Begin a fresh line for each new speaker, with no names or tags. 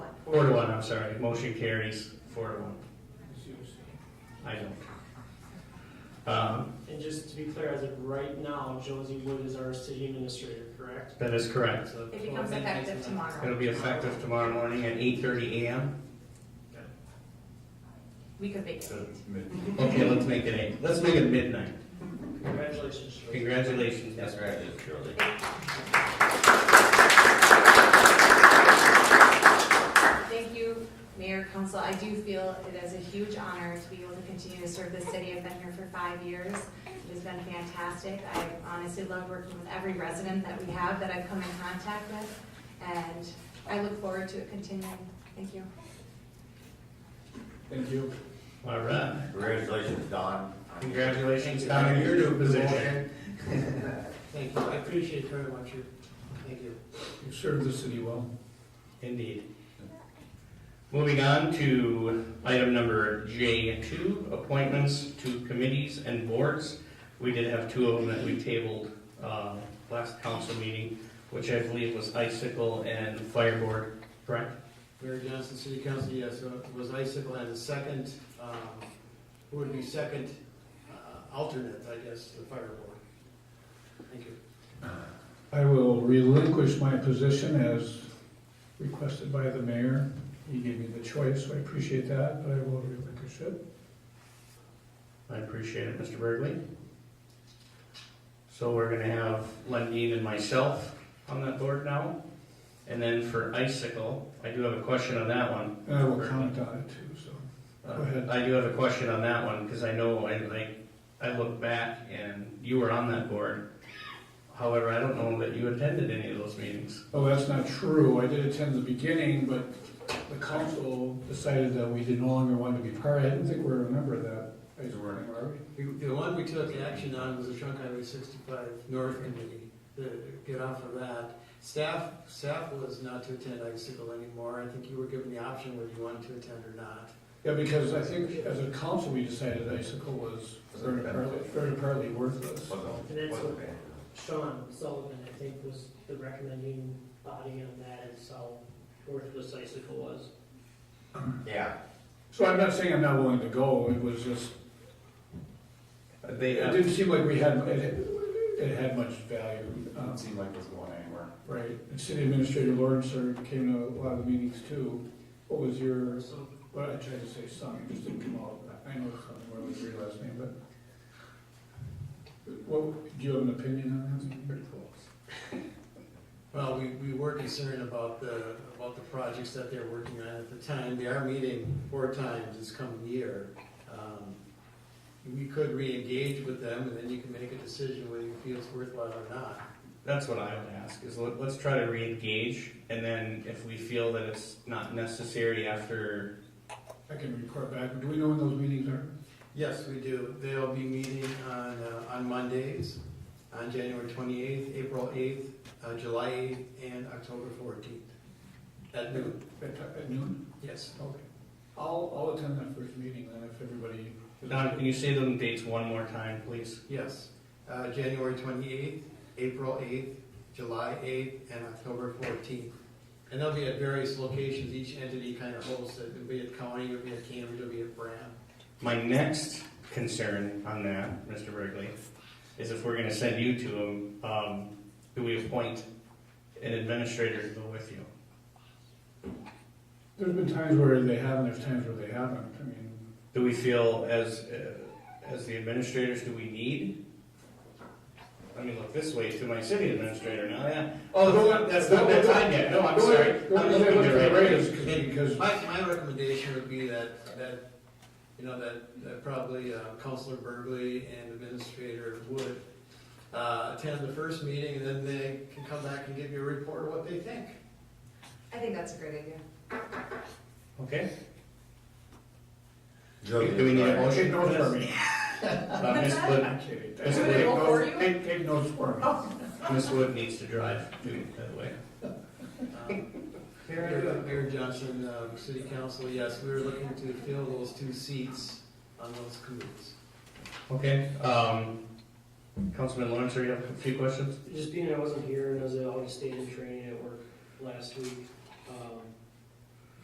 Four to one, I'm sorry. Motion carries four to one. I don't. Um,
And just to be clear, as of right now, Josie Wood is our city administrator, correct?
That is correct.
So-
It becomes effective tomorrow.
It'll be effective tomorrow morning at eight thirty AM.
We could make it.
So- Okay, let's make it eight. Let's make it midnight.
Congratulations, Josie.
Congratulations, Ms.
That's
Rath.
right, surely.
Thank you, Mayor, Council. I do feel it is a huge honor to be able to continue to serve the city. I've been here for five years. It has been fantastic. I honestly love working with every resident that we have that I've come in contact with, and I look forward to it continuing. Thank you.
Thank you.
All right.
Congratulations, Don.
Congratulations, Don, in your new position.
Thank you, I appreciate it very much, you- thank you.
You served the city well.
Indeed. Moving on to item number J2, appointments to committees and boards. We did have two of them that we tabled uh, last council meeting, which I believe was Icicle and Fire Board, correct?
Mayor Johnson, City Council, yes, so it was Icicle as a second, um, who would be second uh, alternate, I guess, to the fire board? Thank you.
I will relinquish my position as requested by the mayor. He gave me the choice, so I appreciate that, but I will relinquish it.
I appreciate it, Mr. Burgley. So we're gonna have Lundin and myself on that board now. And then for Icicle, I do have a question on that one.
And I will comment on it too, so.
Uh,
Go ahead.
I do have a question on that one, because I know, I, like, I look back and you were on that board. However, I don't know that you attended any of those meetings.
Oh, that's not true. I did attend the beginning, but the council decided that we did no longer want to be part. I didn't think we remember that. I just remember, are we?
We- The one we took action on was the Trunk Highway 65 North Committee, to get off of that. Staff, staff was not to attend Icicle anymore, I think you were given the option whether you wanted to attend or not.
Yeah, because I think as a council, we decided Icicle was third and partly, third and partly worthless.
Wasn't, wasn't bad.
Sean Sullivan, I think, was the recommending body on that, and so worthless icicle was.
Yeah,
So I'm not saying I'm not willing to go, it was just,
They,
it didn't seem like we had, it, it had much value. um,
seem like it was going anywhere.
Right, and City Administrator Lawrence sir, came to a lot of the meetings too. What was your,
So,
what I tried to say, son, it just didn't come out, I know it's something where it was your last name, but. What, do you have an opinion on that? Pretty close.
Well, we, we were concerned about the, about the projects that they're working on at the time. They are meeting four times this coming year. Um, We could re-engage with them, and then you can make a decision whether you feel it's worthwhile or not.
that's what I would ask, is let, let's try to reengage, and then if we feel that it's not necessary after,
I can report back, do we know when those meetings are?
Yes, we do. They'll be meeting on, uh, on Mondays, on January 28th, April 8th, uh, July 8th, and October 14th at noon.
At, at noon?
Yes.
Okay. I'll, I'll attend that first meeting then if everybody.
Don, can you say those dates one more time, please?
Yes. Uh, January 28th, April 8th, July 8th, and October 14th. And they'll be at various locations. Each entity kind of hosts it. It'll be at County, it'll be at Cambridge, it'll be at Brand.
My next concern on that, Mr. Burgley, is if we're gonna send you to them, um, do we appoint an administrator to go with you?
There's been times where they have and there's times where they haven't. I mean,
Do we feel as, uh, as the administrators, do we need? Let me look this way to my city administrator now, yeah. Oh, no, no, that's not that time yet, no, I'm
The only-
sorry.
The
I'm looking
only thing I look
at
at
it
right
right
is because, because
My, my recommendation would be that, that, you know, that, that probably uh, Counselor Burgley and Administrator Wood uh, attend the first meeting, and then they can come back and give you a report of what they think.
I think that's a great idea.
Okay,
Josie,
Do we need a
sorry.
motion?
take notes for me.
uh, Ms. Wood,
I'm kidding.
That's a great
Take notes-
goal for you.
Take, take notes for me.
Ms. Wood needs to drive too, by the way.
Um, Mayor Mayor Johnson, um, City Council, yes, we were looking to fill those two seats on those committees.
Okay, um, Councilman Lawrence, are you have a few questions?
Just being I wasn't here, and as I always stayed in training at work last week, um,